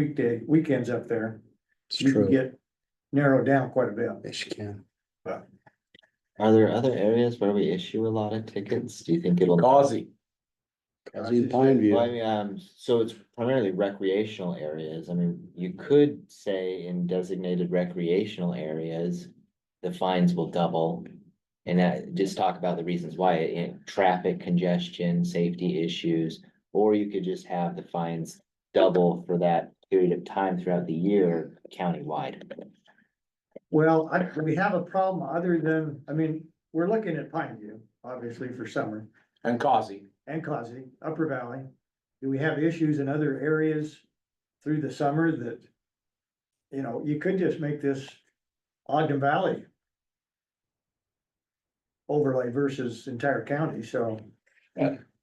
weekday, weekends up there, It's you can true. get narrowed down quite a bit. Yes, you can. Are there other areas where we issue a lot of tickets? Do you think it'll? Aussie. Cause in Pine View, Well, I mean, um, so it's primarily recreational areas. I mean, you could say in designated recreational areas. The fines will double. And that, just talk about the reasons why, eh, traffic congestion, safety issues. Or you could just have the fines double for that period of time throughout the year countywide. Well, I, we have a problem other than, I mean, we're looking at Pine View, obviously for summer, And Causey. and Closet, Upper Valley. Do we have issues in other areas through the summer that, you know, you could just make this Ogden Valley overlay versus entire county, so.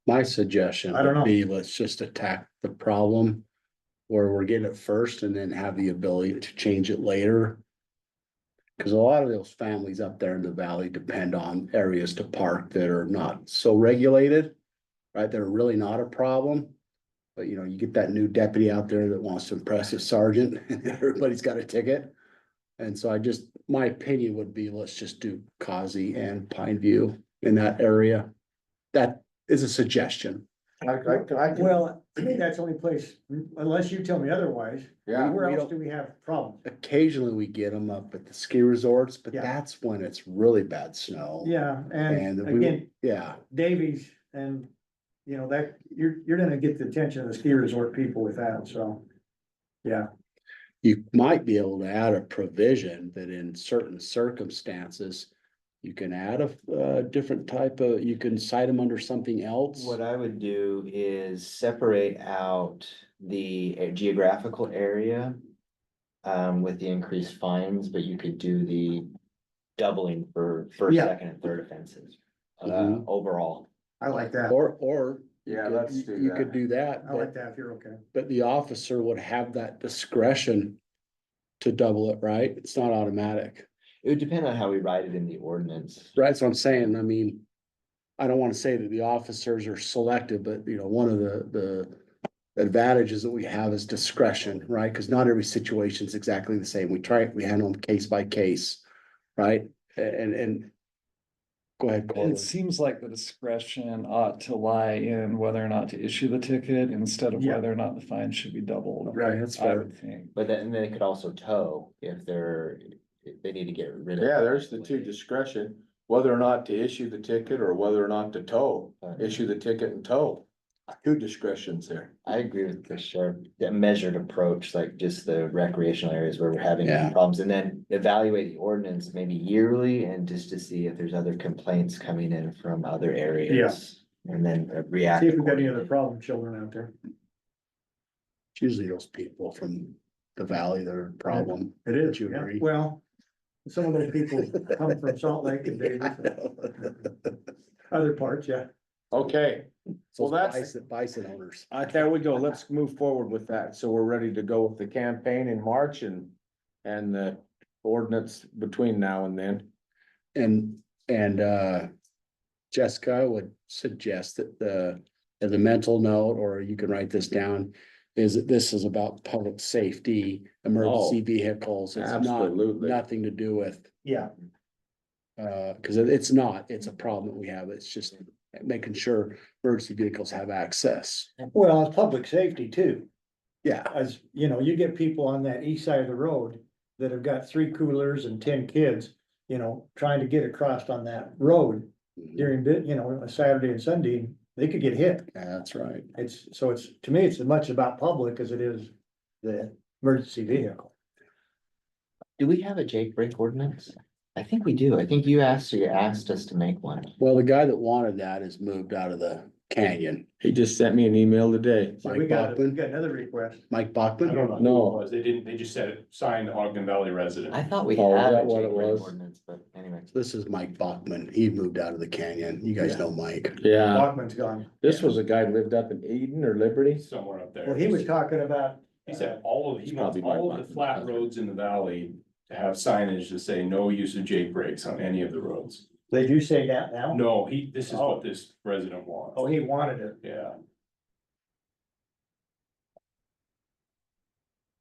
my suggestion I don't know. would be, let's just attack the problem. Where we're getting it first and then have the ability to change it later. Cause a lot of those families up there in the valley depend on areas to park that are not so regulated. Right, they're really not a problem. But you know, you get that new deputy out there that wants to impress his sergeant, and everybody's got a ticket. And so I just, my opinion would be, let's just do Causey and Pine View in that area. That is a suggestion. I, I, Well, to me, that's the only place, unless you tell me otherwise, Yeah, where we else don't- do we have problems? Occasionally we get them up at the ski resorts, but Yeah. that's when it's really bad snow. Yeah, and And we- again, Yeah, Davies and, you know, that, you're, you're gonna get the attention of the ski resort people with that, so. you might be able to add a provision that in certain circumstances. You can add a, uh different type of, you can cite them under something else. What I would do is separate out the eh, geographical area. Um, with the increased fines, but you could do the doubling for first, Yeah. second and third offenses. Uh, Mhm. overall, I like that. Or, or. you Yeah, could- let's you- do You could that. do that, I like but, that, if you're okay. but the officer would have that discretion to double it, right? It's not automatic. it would depend on how we write it in the ordinance. Right, that's what I'm saying, I mean, I don't wanna say that the officers are selective, but you know, one of the, the advantages that we have is discretion, right? Cause not every situation's exactly the same, we try, we handle them case by case, right? A- And, and go ahead, Corwin. It seems like the discretion ought to lie in whether or not to issue the ticket instead of Yeah. whether or not the fine should be doubled. Right, that's I fair. would think. But then, and then it could also tow if they're, if they need to get rid of. yeah, there's the two discretion, whether or not to issue the ticket or whether or not to tow, issue the ticket and tow. Two discretions there. I agree with the sheriff, that measured approach, like just the recreational areas where we're having Yeah. problems, and then evaluate the ordinance maybe yearly and just to see if there's other complaints coming in from other areas. And then uh, react. See if we've got any other accordingly. problem children out there. It's Usually those people from the valley that are a problem. It is, you agree? Well, some of those people come from Salt Lake and Davies, other parts, yeah. Okay, So Well, that's- bison, bison owners. uh, there we go. Let's move forward with that. So we're ready to go with the campaign in March and, and the ordinance between now and then. And, and, uh, Jessica, I would suggest that the, as a mental note, or you can write this down, is that this is about public safety, emergency Oh, vehicles. It's not, absolutely. nothing to do with, Yeah, uh, cause it- it's not, it's a problem that we have. It's just making sure emergency vehicles have access. well, it's public safety too, Yeah, as, you know, you get people on that east side of the road that have got three coolers and ten kids, you know, trying to get across on that road during, bu- you know, a Saturday and Sunday, they could get hit. that's right. It's, so it's, to me, it's as much about public as it is the emergency vehicle. Do we have a Jake break ordinance? I think we do. I think you asked, you asked us to make one. Well, the guy that wanted that has moved out of the canyon. He just sent me an email today. So we Mike got, we Bachman, got another request. Mike I don't Bachman, know No. who it was. They didn't, they just said, signed Ogden Valley resident. I thought we Oh, is had a that what Jake it break was? ordinance, but anyway. this is Mike Bachman. He moved out of the canyon. You guys Yeah. know Mike. Yeah, Bachman's gone. Uh, this was a guy who lived up in Eden or Liberty. Somewhere up there. Well, he was talking about, He said all of, he wants all of the flat roads in the valley to have signage to say no use of Jake brakes on any of the roads. they do say that now? No, he, this is what this resident wants. Oh, he wanted it. Yeah,